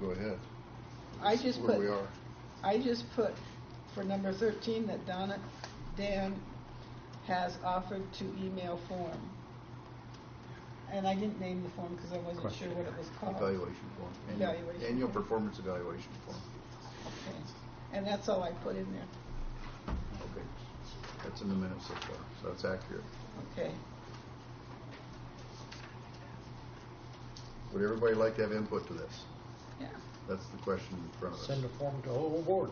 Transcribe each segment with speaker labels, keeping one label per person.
Speaker 1: Go ahead.
Speaker 2: I just
Speaker 1: Where we
Speaker 2: put,
Speaker 1: are.
Speaker 2: I just put for number thirteen that Donna, Dan has offered to email form. And I didn't name the form because I wasn't sure what it was called.
Speaker 1: Evaluation form. Annual-
Speaker 2: Evaluation.
Speaker 1: Annual performance evaluation form.
Speaker 2: Okay. And that's all I put in there.
Speaker 1: Okay. That's in the minutes so far, so that's accurate.
Speaker 2: Okay.
Speaker 1: Would everybody like to have input to this?
Speaker 2: Yeah.
Speaker 1: That's the question in front of us.
Speaker 3: Send a form to the whole board.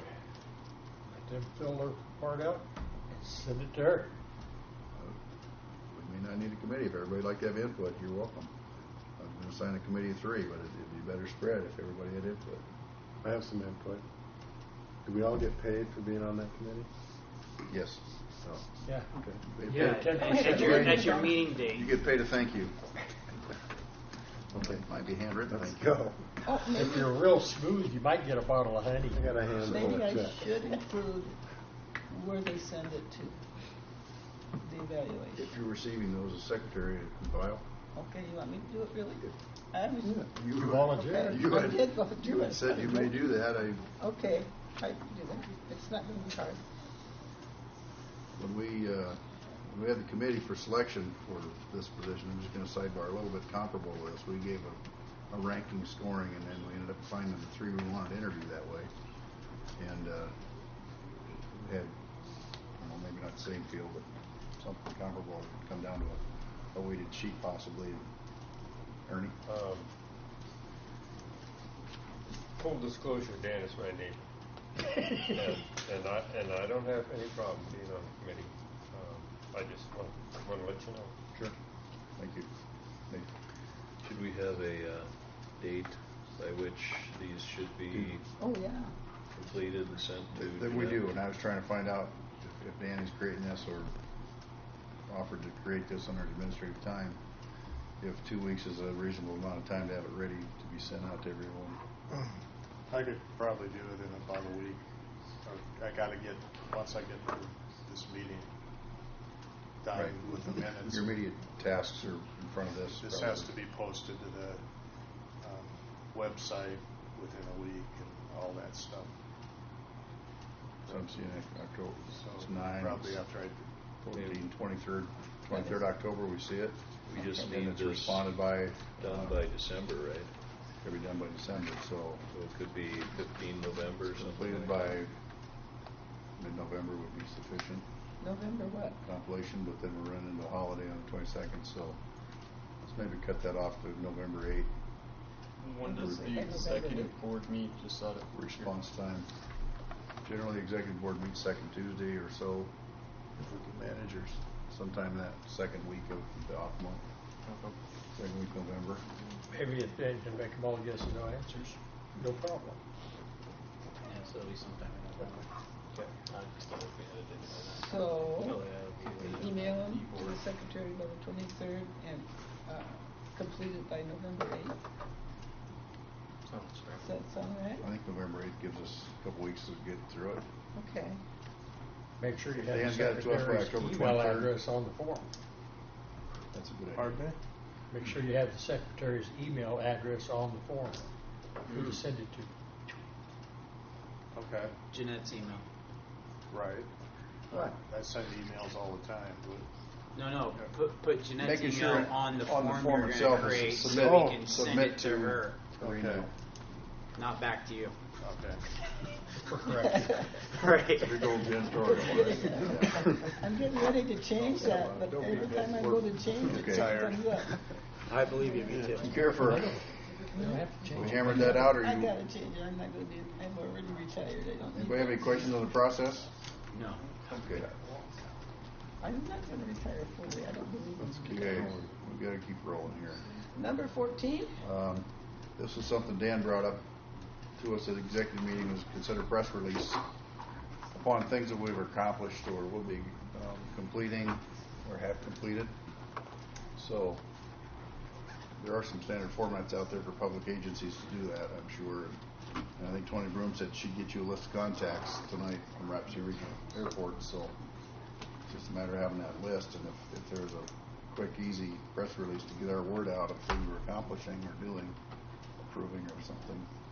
Speaker 3: Let them fill their part out and send it to her.
Speaker 1: Uh, We may not need a committee. If everybody'd like to have input, you're welcome. I'm going to sign a committee of three, but it'd- it'd be better spread if everybody had input.
Speaker 4: I have some input. Do we all get paid for being on that committee?
Speaker 1: Yes.
Speaker 4: No.
Speaker 3: Yeah.
Speaker 1: Okay. They
Speaker 5: Yeah,
Speaker 1: pay-
Speaker 5: at at your, at your meeting
Speaker 1: You
Speaker 5: date.
Speaker 1: get paid a thank you.
Speaker 4: Okay.
Speaker 1: Might be handwritten,
Speaker 4: Let's
Speaker 1: thank you.
Speaker 4: go.
Speaker 2: Oh,
Speaker 3: If you're
Speaker 2: maybe,
Speaker 3: real smooth, you might get a bottle of honey.
Speaker 4: I got a handful
Speaker 2: maybe
Speaker 4: of
Speaker 2: I
Speaker 4: check.
Speaker 2: should include where they send it to, the evaluation.
Speaker 1: If you're receiving those as secretary to compile,
Speaker 2: Okay, you want me to do it really? I was,
Speaker 1: you.
Speaker 3: You volunteer.
Speaker 1: You
Speaker 2: I
Speaker 1: had-
Speaker 2: did volunteer.
Speaker 1: You had said you may do that. I,
Speaker 2: okay, I can do that. It's not going to be hard.
Speaker 1: when we, uh, when we had the committee for selection for this position, I'm just gonna sidebar a little bit comparable to this. We gave a, a ranking scoring and then we ended up finding the three we wanted to interview that way. And, uh, we had, I don't know, maybe not the same field, but something comparable, It'd come down to a, a weighted sheet possibly. Ernie?
Speaker 6: Um, Full disclosure, Dan is my neighbor. And and I, and I don't have any problem being on the committee. Um, I just want, want to let you know.
Speaker 1: Sure. Thank you. Nate?
Speaker 7: Should we have a uh, date by which these should be
Speaker 2: Oh, yeah.
Speaker 7: completed and sent to?
Speaker 1: That we
Speaker 7: Jeanette?
Speaker 1: do, and I was trying to find out if- if Danny's creating this or offered to create this under administrative time, if two weeks is a reasonable amount of time to have it ready to be sent out to everyone.
Speaker 8: I could probably do it in about a week. I gotta get, once I get through this meeting done
Speaker 1: Right.
Speaker 8: with the minutes.
Speaker 1: Your immediate tasks are in front of this.
Speaker 8: This has to
Speaker 1: probably.
Speaker 8: be posted to the um, website within a week and all that stuff.
Speaker 1: So I'm seeing it October, it's
Speaker 8: So
Speaker 1: nine,
Speaker 8: probably after I,
Speaker 1: fourteen, twenty-third, twenty-third October, we see it.
Speaker 7: We just
Speaker 1: And
Speaker 7: need
Speaker 1: it's
Speaker 7: this
Speaker 1: responded by,
Speaker 7: Done by December, right?
Speaker 1: it'll be done by December, so
Speaker 7: So it could be 15 November or something
Speaker 1: completed
Speaker 7: like
Speaker 1: by
Speaker 7: that.
Speaker 1: mid-November would be sufficient.
Speaker 2: November what?
Speaker 1: compilation, but then we're running into a holiday on the twenty-second, so let's maybe cut that off to November eighth,
Speaker 5: When
Speaker 1: does
Speaker 2: the executive
Speaker 5: board meet, just out of
Speaker 1: response time. Generally, the executive board meets second Tuesday or so, if we can manage, or sometime that second week of the off month, second week of November.
Speaker 3: Maybe if they can make them all yes and no answers, no problem.
Speaker 5: Yeah, so it'll be sometime in November.
Speaker 2: So,
Speaker 5: Probably that'll be the-
Speaker 2: email them to the secretary by the twenty-third and uh, complete it by November eighth.
Speaker 5: Sounds
Speaker 2: Does
Speaker 5: right.
Speaker 2: that sound right?
Speaker 1: I think November eighth gives us a couple weeks to get through it.
Speaker 2: Okay.
Speaker 3: Make sure you have the
Speaker 1: Dan's got it to us by
Speaker 3: secretary's
Speaker 1: October
Speaker 3: email
Speaker 1: 23rd.
Speaker 3: address on the form.
Speaker 1: That's a good idea.
Speaker 4: Pardon me?
Speaker 3: Make sure you have the secretary's email address on the form, who to send it to.
Speaker 8: okay,
Speaker 5: Jeanette's email.
Speaker 8: right.
Speaker 2: What?
Speaker 8: I send emails all the time, but
Speaker 5: No, no, put, put Jeanette's
Speaker 1: Making
Speaker 5: email
Speaker 1: sure
Speaker 5: on the
Speaker 1: on
Speaker 5: form
Speaker 1: the form
Speaker 5: you're gonna
Speaker 1: itself is
Speaker 5: create so
Speaker 1: submit-
Speaker 5: we can send
Speaker 1: submit
Speaker 5: it to
Speaker 1: to-
Speaker 5: her,
Speaker 1: Or
Speaker 8: Okay.
Speaker 1: email.
Speaker 5: not back to you.
Speaker 8: okay.
Speaker 5: Right.
Speaker 1: Big old Jen's drawing.
Speaker 2: I'm getting ready to change that, but every time I go to change it,
Speaker 1: Okay.
Speaker 2: it comes up.
Speaker 5: I believe you, me too.
Speaker 1: You care for,
Speaker 3: You don't have to
Speaker 1: we
Speaker 3: change it.
Speaker 1: hammered that out, or
Speaker 2: I
Speaker 1: you,
Speaker 2: gotta change it, I'm not gonna do, I'm already retired, I don't need.
Speaker 1: anybody have any
Speaker 2: that.
Speaker 1: questions on the process?
Speaker 5: No.
Speaker 1: Okay.
Speaker 2: I'm not gonna retire fully, I don't believe in
Speaker 1: Okay, we gotta keep rolling here.
Speaker 2: Number fourteen?
Speaker 1: Um, this is something Dan brought up to us at executive meeting, was consider press release upon things that we've accomplished or will be um, completing or have completed. So, there are some standard formats out there for public agencies to do that, I'm sure. And I think Tony Broom said she'd get you a list of contacts tonight from Rapid Regional Airport, so it's just a matter of having that list, and if, if there's a quick, easy press release to get our word out of things we're accomplishing or doing, approving or something,